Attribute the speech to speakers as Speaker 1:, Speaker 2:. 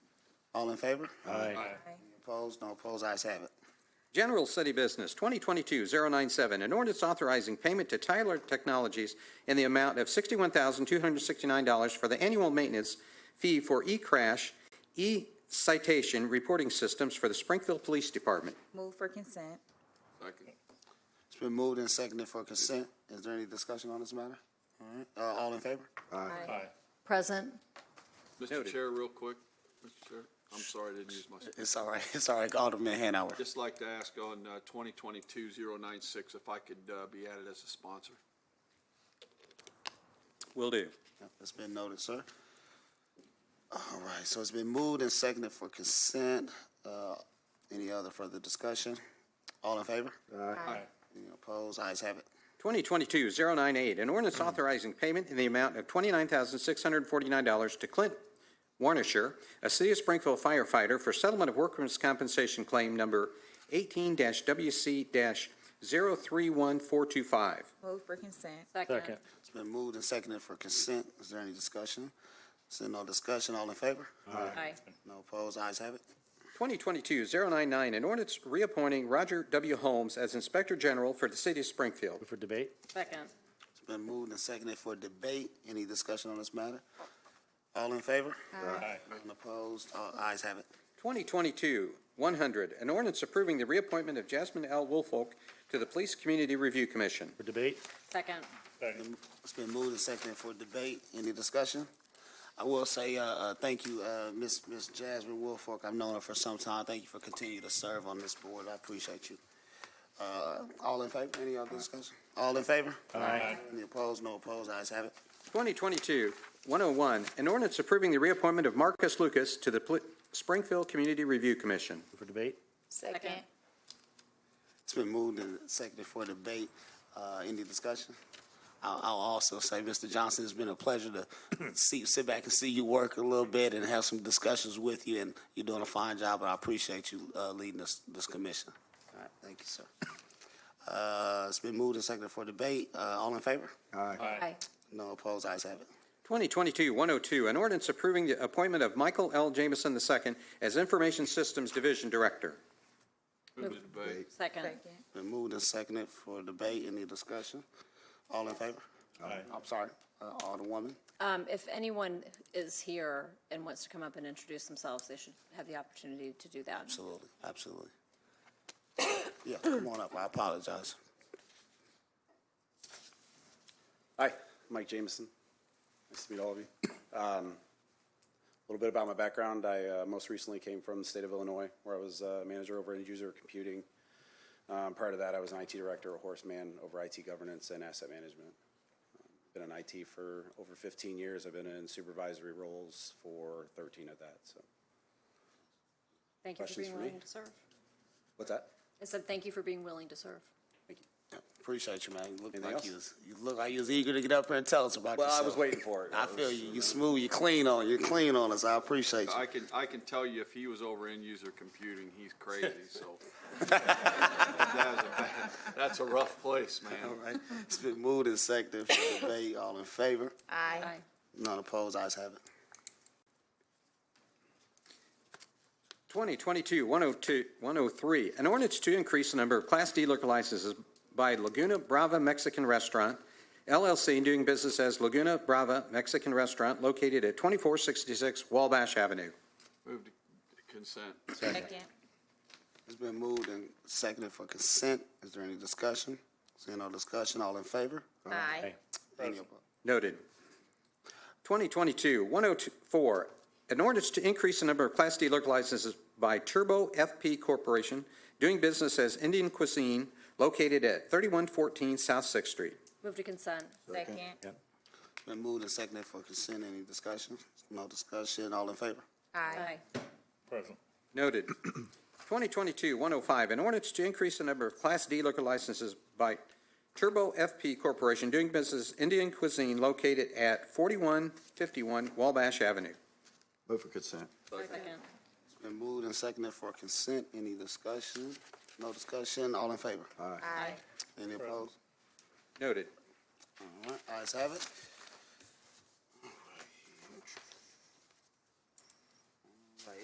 Speaker 1: All in favor?
Speaker 2: Aye.
Speaker 1: Any Opposed? No opposed? Ayes have it.
Speaker 3: General City Business, 2022-097, an ordinance authorizing payment to Tyler Technologies in the amount of $61,269 for the annual maintenance fee for e-crash, e-citation reporting systems for the Springfield Police Department.
Speaker 4: Move for consent.
Speaker 5: Second.
Speaker 1: It's been moved and seconded for consent. Is there any discussion on this matter? All right, uh, all in favor?
Speaker 4: Aye.
Speaker 6: Present.
Speaker 5: Mr.
Speaker 3: Noted.
Speaker 5: Chair, real quick, Mr. Chair, I'm sorry I didn't use my,
Speaker 1: It's all right, it's all right, Alderman Hanauer.
Speaker 5: just like to ask on uh, 2022-096 if I could uh, be added as a sponsor.
Speaker 3: Will do.
Speaker 1: It's been noted, sir. All right, so it's been moved and seconded for consent. Uh, Any other further discussion? All in favor?
Speaker 4: Aye.
Speaker 1: Any opposed? Ayes have it.
Speaker 3: 2022-098, an ordinance authorizing payment in the amount of $29,649 to Clint Warnisher, a City of Springfield firefighter, for settlement of workers' compensation claim number 18-WC-031425.
Speaker 4: Move for consent.
Speaker 2: Second.
Speaker 1: It's been moved and seconded for consent. Is there any discussion? Seeing no discussion, all in favor?
Speaker 4: Aye.
Speaker 1: No opposed? Ayes have it.
Speaker 3: 2022-099, an ordinance reappointing Roger W. Holmes as Inspector General for the City of Springfield.
Speaker 2: Move for debate?
Speaker 6: Second.
Speaker 1: It's been moved and seconded for debate. Any discussion on this matter? All in favor?
Speaker 2: Aye.
Speaker 1: None opposed? All ayes have it.
Speaker 3: 2022-100, an ordinance approving the reappointment of Jasmine L. Woolfolk to the Police Community Review Commission.
Speaker 2: For debate?
Speaker 6: Second.
Speaker 1: It's been moved and seconded for debate. Any discussion? I will say, uh, uh, thank you, uh, Ms. Ms. Jasmine Woolfolk. I've known her for some time. Thank you for continuing to serve on this board. I appreciate you. Uh, all in favor? Any other discussion? All in favor?
Speaker 2: Aye.
Speaker 1: Any opposed? No opposed? Ayes have it.
Speaker 3: 2022-101, an ordinance approving the reappointment of Marcus Lucas to the Pl- Springfield Community Review Commission.
Speaker 2: Move for debate?
Speaker 6: Second.
Speaker 1: It's been moved and seconded for debate. Uh, any discussion? I'll, I'll also say, Mr. Johnson, it's been a pleasure to see, sit back and see you work a little bit and have some discussions with you, and you're doing a fine job, and I appreciate you, uh, leading this, this commission. All right, thank you, sir. Uh, it's been moved and seconded for debate. Uh, all in favor?
Speaker 6: Aye.
Speaker 1: No opposed, ayes have it.
Speaker 3: 2022-102, an ordinance approving the appointment of Michael L. Jameson II as Information Systems Division Director.
Speaker 5: Move to debate.
Speaker 6: Second.
Speaker 4: Second.
Speaker 1: Been moved and seconded for debate. Any discussion? All in favor?
Speaker 2: Aye.
Speaker 1: I'm sorry, uh, Alderwoman.
Speaker 6: Um, if anyone is here and wants to come up and introduce themselves, they should have the opportunity to do that.
Speaker 1: Absolutely, absolutely. Yeah, come on up, I apologize.
Speaker 7: Hi, Mike Jameson. Nice to meet all of you. Um, A little bit about my background. I uh, most recently came from the state of Illinois, where I was uh, manager over end user computing. Um, Prior to that, I was an IT director, a horseman over IT governance and asset management. Um, Been in IT for over 15 years. I've been in supervisory roles for 13 of that, so.
Speaker 6: Thank you for
Speaker 7: Questions
Speaker 6: being
Speaker 7: for me?
Speaker 6: willing to serve.
Speaker 7: What's that?
Speaker 6: I said, thank you for being willing to serve.
Speaker 1: Yeah, Appreciate you, man. You look
Speaker 7: Anything
Speaker 1: like
Speaker 7: else?
Speaker 1: you was, you look like you was eager to get up here and tell us about
Speaker 7: Well, I
Speaker 1: yourself.
Speaker 7: was waiting for it.
Speaker 1: I
Speaker 7: I
Speaker 1: feel
Speaker 7: was-
Speaker 1: you. You smooth, you clean on, you clean on us. I appreciate you.
Speaker 5: I can, I can tell you if he was over end user computing, he's crazy, so. That is a bad- That's a rough place,
Speaker 1: All
Speaker 5: man.
Speaker 1: right. It's been moved and seconded for debate. All in favor?
Speaker 4: Aye.
Speaker 6: Aye.
Speaker 1: None opposed. Ayes have it.
Speaker 3: 2022-103, an ordinance to increase the number of Class D liquor licenses by Laguna Brava Mexican Restaurant LLC doing business as Laguna Brava Mexican Restaurant located at 2466 Wabash Avenue.
Speaker 5: Move to consent.
Speaker 4: Second.
Speaker 1: It's been moved and seconded for consent. Is there any discussion? Seeing no discussion, all in favor?
Speaker 4: Aye.
Speaker 1: Any opposed?
Speaker 3: Noted. 2022-104, an ordinance to increase the number of Class D liquor licenses by Turbo FP Corporation doing business as Indian Cuisine located at 3114 South Sixth Street.
Speaker 6: Move to consent.
Speaker 4: Second.
Speaker 1: It's Been moved and seconded for consent. Any discussion? No discussion, all in favor?
Speaker 4: Aye.
Speaker 2: Present.
Speaker 3: Noted. 2022-105, an ordinance to increase the number of Class D liquor licenses by Turbo FP Corporation doing business Indian Cuisine located at 4151 Wabash Avenue.
Speaker 7: Move for consent.
Speaker 6: Second.
Speaker 1: It's Been moved and seconded for consent. Any discussion? No discussion, all in favor?
Speaker 4: Aye.
Speaker 1: Any opposed?
Speaker 3: Noted.
Speaker 1: All right, ayes have it.